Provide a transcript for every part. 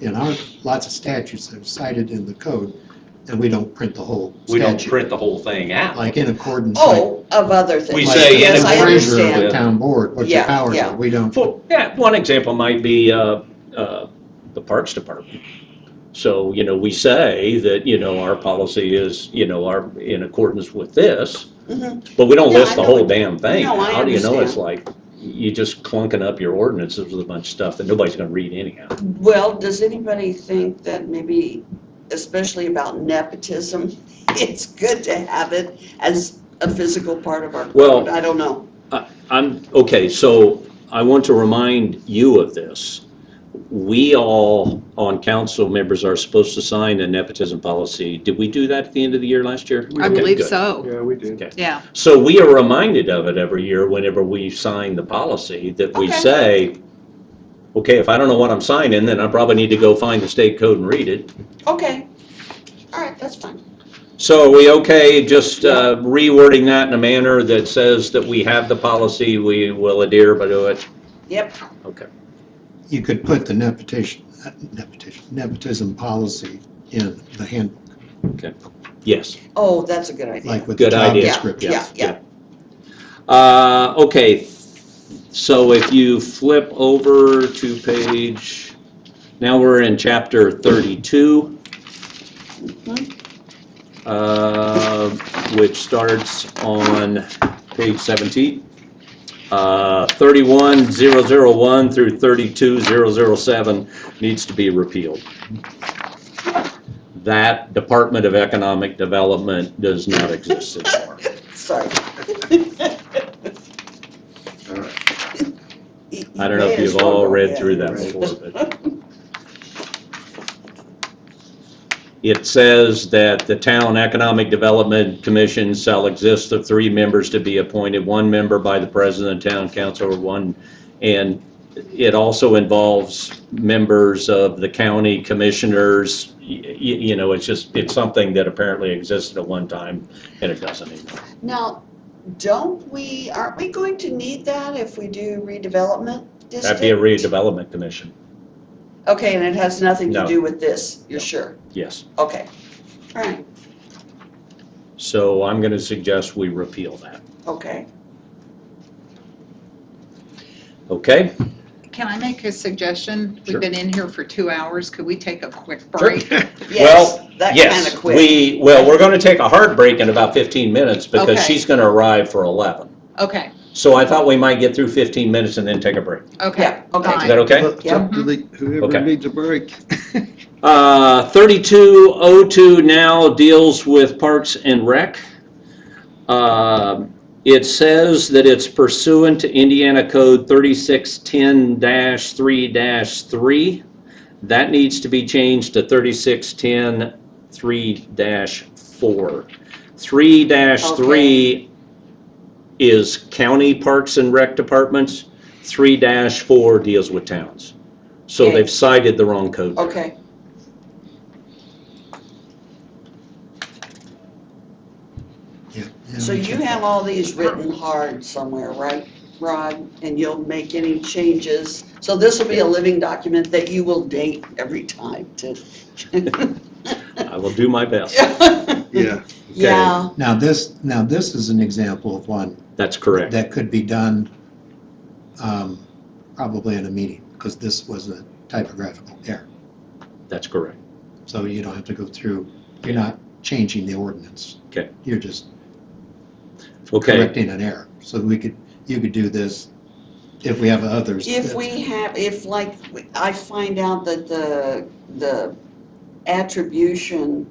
in our, lots of statutes that are cited in the code, and we don't print the whole We don't statute. print the whole thing out. Like in accordance, like, Oh, of other things. We like say in Yes, I the treasurer of the understand. town board, what your Yeah, powers yeah. are, we don't. For, yeah, one example might be, uh, uh, the Parks Department. So, you know, we say that, you know, our policy is, you know, our, in accordance with this, Mhm. but we don't No, list I the know whole what- damn thing. No, I How do you know? It's understand. like, you just clunking up your ordinances with a bunch of stuff that nobody's gonna read anyhow. Well, does anybody think that maybe, especially about nepotism, it's good to have it as a physical part of our Well- code? I don't know. I'm, okay, so I want to remind you of this. We all, on council members, are supposed to sign a nepotism policy. Did we do that at the end of the year last year? I Okay, believe good. so, Yeah, we did. yeah. So we are reminded of it every year whenever we sign the policy, that we Okay. say, okay, if I don't know what I'm signing, then I probably need to go find the state code and read it. Okay, all right, that's fine. So are we okay just uh, rewording that in a manner that says that we have the policy, we will adhere by to it? Yep, Okay. You could put the nepotism, nepotism, nepotism policy in the handbook, Yes. oh, that's a good idea. like with the Good job idea. Yeah, description. Yeah, yeah. Uh, okay, so if you flip over to page, now we're in chapter thirty-two. Uh, which starts on page seventeen. Uh, thirty-one zero zero one through thirty-two zero zero seven needs to be repealed. That Department of Economic Development does not exist anymore. Sorry. I don't know if you've all read through that before, but. It says that the Town Economic Development Commission shall exist of three members to be appointed, one member by the president, town council, or one, and it also involves members of the county commissioners. Y- y- You know, it's just, it's something that apparently existed at one time, and it doesn't anymore. Now, don't we, aren't we going to need that if we do redevelopment That'd district? be a redevelopment commission, Okay, and it has nothing to No. do with this, you're No. sure? yes. Okay, all right, So I'm going to suggest we repeal that. okay. Okay, Can I make a suggestion? Sure. We've been in here for two hours, could we take a quick break? Yes, that kind yes, of quick. we, well, we're gonna take a hard break in about fifteen minutes because Okay. she's gonna arrive for eleven. Okay, So I thought we might get through fifteen minutes and then take a break. okay, Yeah, okay. Is fine. that okay? It's up to the- Whoever Okay. needs a break. Uh, thirty-two oh two now deals with Parks and Rec. Um, It says that it's pursuant to Indiana Code thirty-six ten three three. That needs to be changed to thirty-six ten three four. Three three is county parks and rec departments. Three four deals with towns. So Okay. they've cited the wrong code. there. Okay, Yeah, yeah, so we you can- have all these written hard somewhere, right, Rod? And you'll make any changes, so this will be a living document that you will date every time to. I will do my best. Yeah. Yeah, Now, this, now this is an example of one That's correct. that could be done um, probably in a meeting, because this was a typographical error. That's correct. So you don't have to go through, you're not changing the ordinance. Okay. You're just Okay. correcting an error. So we could, you could do this if we have others. if we have, if like, I find out that the, the attribution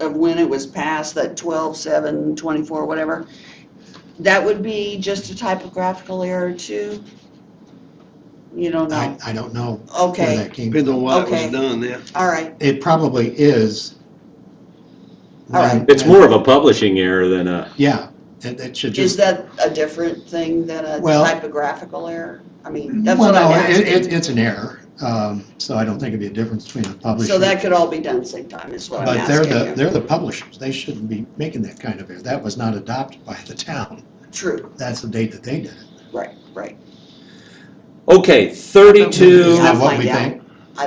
of when it was passed, that 12, 7, 24, whatever, that would be just a typographical error too? You don't I, know? I don't know where Okay, that came Depends from. on why it Okay. was done, yeah. all right, It probably is. All right. It's more of a publishing error than a, Yeah, it, it should is just. that a different thing than a Well- typographical error? I mean, that's Well, what no, I'm it, it, asking. it's an error, um, so I don't think it'd be a difference between a publisher. So that could all be done same time, is what I'm But they're the, asking you. they're the publishers, they shouldn't be making that kind of error, that was not adopted by the town, True, that's the date that they did it. right, right. okay, 32, Is that I'll what find we out. think?